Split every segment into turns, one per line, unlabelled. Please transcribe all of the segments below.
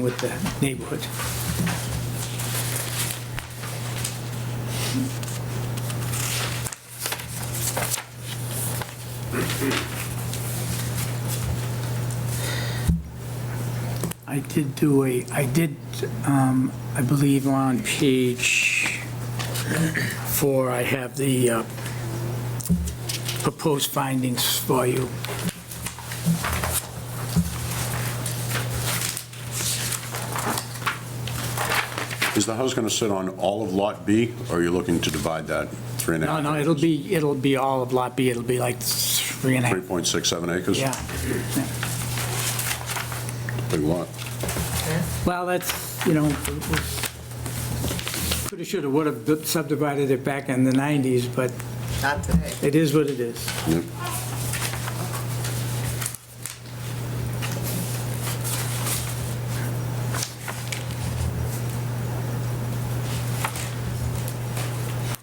with the neighborhood. I did do a, I did, um, I believe on page four, I have the uh, proposed findings for you.
Is the house going to sit on all of Lot B, or are you looking to divide that three and a
No,
half?
no, it'll be, it'll be all of Lot B, it'll be like three and a half,
3.67 acres?
yeah. yeah.
Big lot.
Well, that's, you know, pretty sure it would have subdivided it back in the 90s, but
Not today.
it is what it is.
Yep.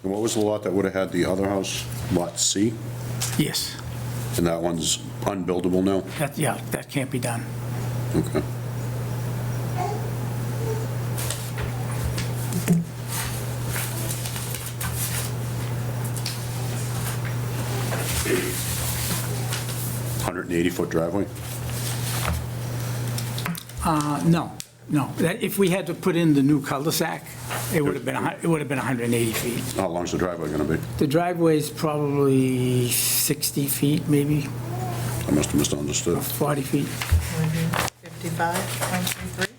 And what was the lot that would have had the other house, Lot C?
Yes,
And that one's unbuildable now?
that, yeah, that can't be done.
Okay. Hundred and eighty-foot driveway?
Uh, No, no, that, if we had to put in the new cul-de-sac, it would have been, a hun- it would have been 180 feet.
How long's the driveway gonna be?
The driveway's probably 60 feet, maybe
I must have misunderstood.
40 feet.
55, 133?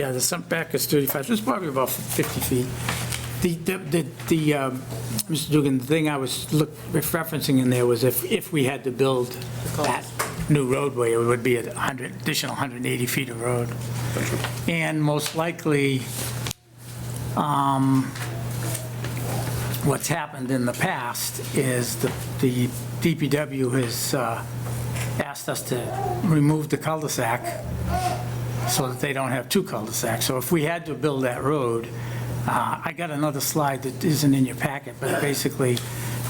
Yeah, the sump back is 35, so it's probably about 50 feet. The, the, the- the, um, Mr. Dugan, the thing I was look- referencing in there was if, if we had to build that new roadway, it would be a 100, additional 180 feet of road. And most likely, um, what's happened in the past is the, the DPW has uh, asked us to remove the cul-de-sac so that they don't have two cul-de-sacs. So if we had to build that road, uh, I got another slide that isn't in your packet, but basically,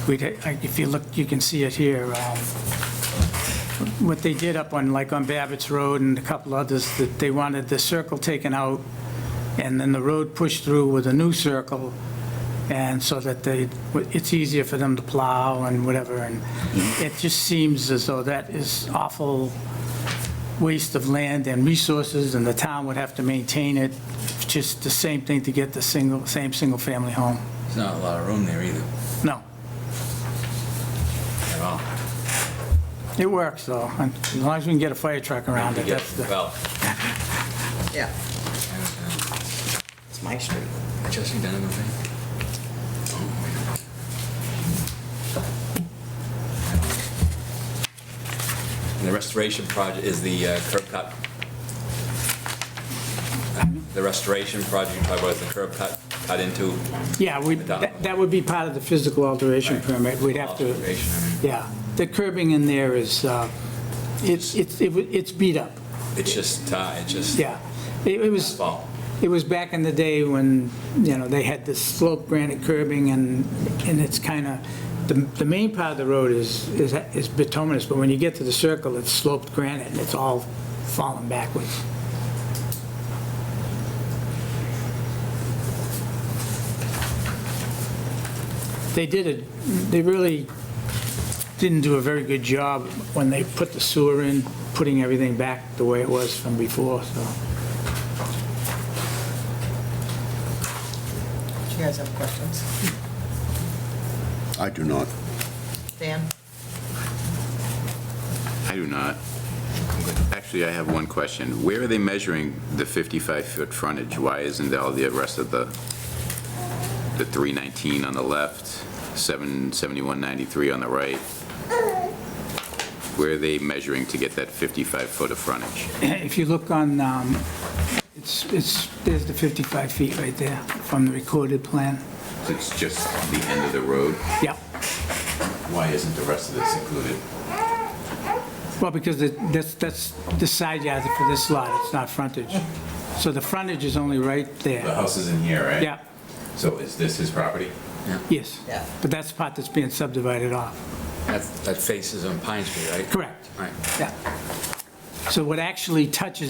we'd, like, if you look, you can see it here. um, What they did up on, like on Babbitt's Road and a couple others, that they wanted the circle taken out, and then the road pushed through with a new circle, and so that they, it's easier for them to plow and whatever, and it just seems as though that is awful waste of land and resources, and the town would have to maintain it, just the same thing to get the single, same single-family home.
There's not a lot of room there either,
No,
at all.
it works, though, and as long as we can get a fire truck around it, that's the,
Well,
Yeah.
it's my street. Chelsea Donovan. Oh, yeah. And the restoration project is the uh, curb cut. The restoration project, you talk about is the curb cut, cut into.
yeah, we, that that would be part of the physical alteration permit, we'd have to,
Alteration, I mean.
yeah. The curbing in there is, uh, it's, it's, it wa- it's beat up,
It's just, uh, it's just
yeah. It it was,
asphalt.
It was back in the day when, you know, they had this slope granite curbing and, and it's kind of, the, the main part of the road is, is, is bituminous, but when you get to the circle, it's sloped granite and it's all falling backwards. They did it, they really didn't do a very good job when they put the sewer in, putting everything back the way it was from before, so.
Do you guys have questions?
I do not.
Dan?
I do not. Actually, I have one question. Where are they measuring the 55-foot frontage? Why isn't all the rest of the, the 319 on the left, 7, 7193 on the right? Where are they measuring to get that 55-foot of frontage?
If you look on, um, it's, it's, there's the 55 feet right there from the recorded plan.
It's just the end of the road.
Yeah,
Why isn't the rest of this included?
well, because the- that's, that's the side yard for this lot, it's not frontage. So the frontage is only right there.
house is in here, right?
Yeah,
So is this his property?
yes.
Yeah.
But that's the part that's being subdivided off.
That's- That faces on Pine Street, right?
Correct,
Right.
yeah. So what actually touches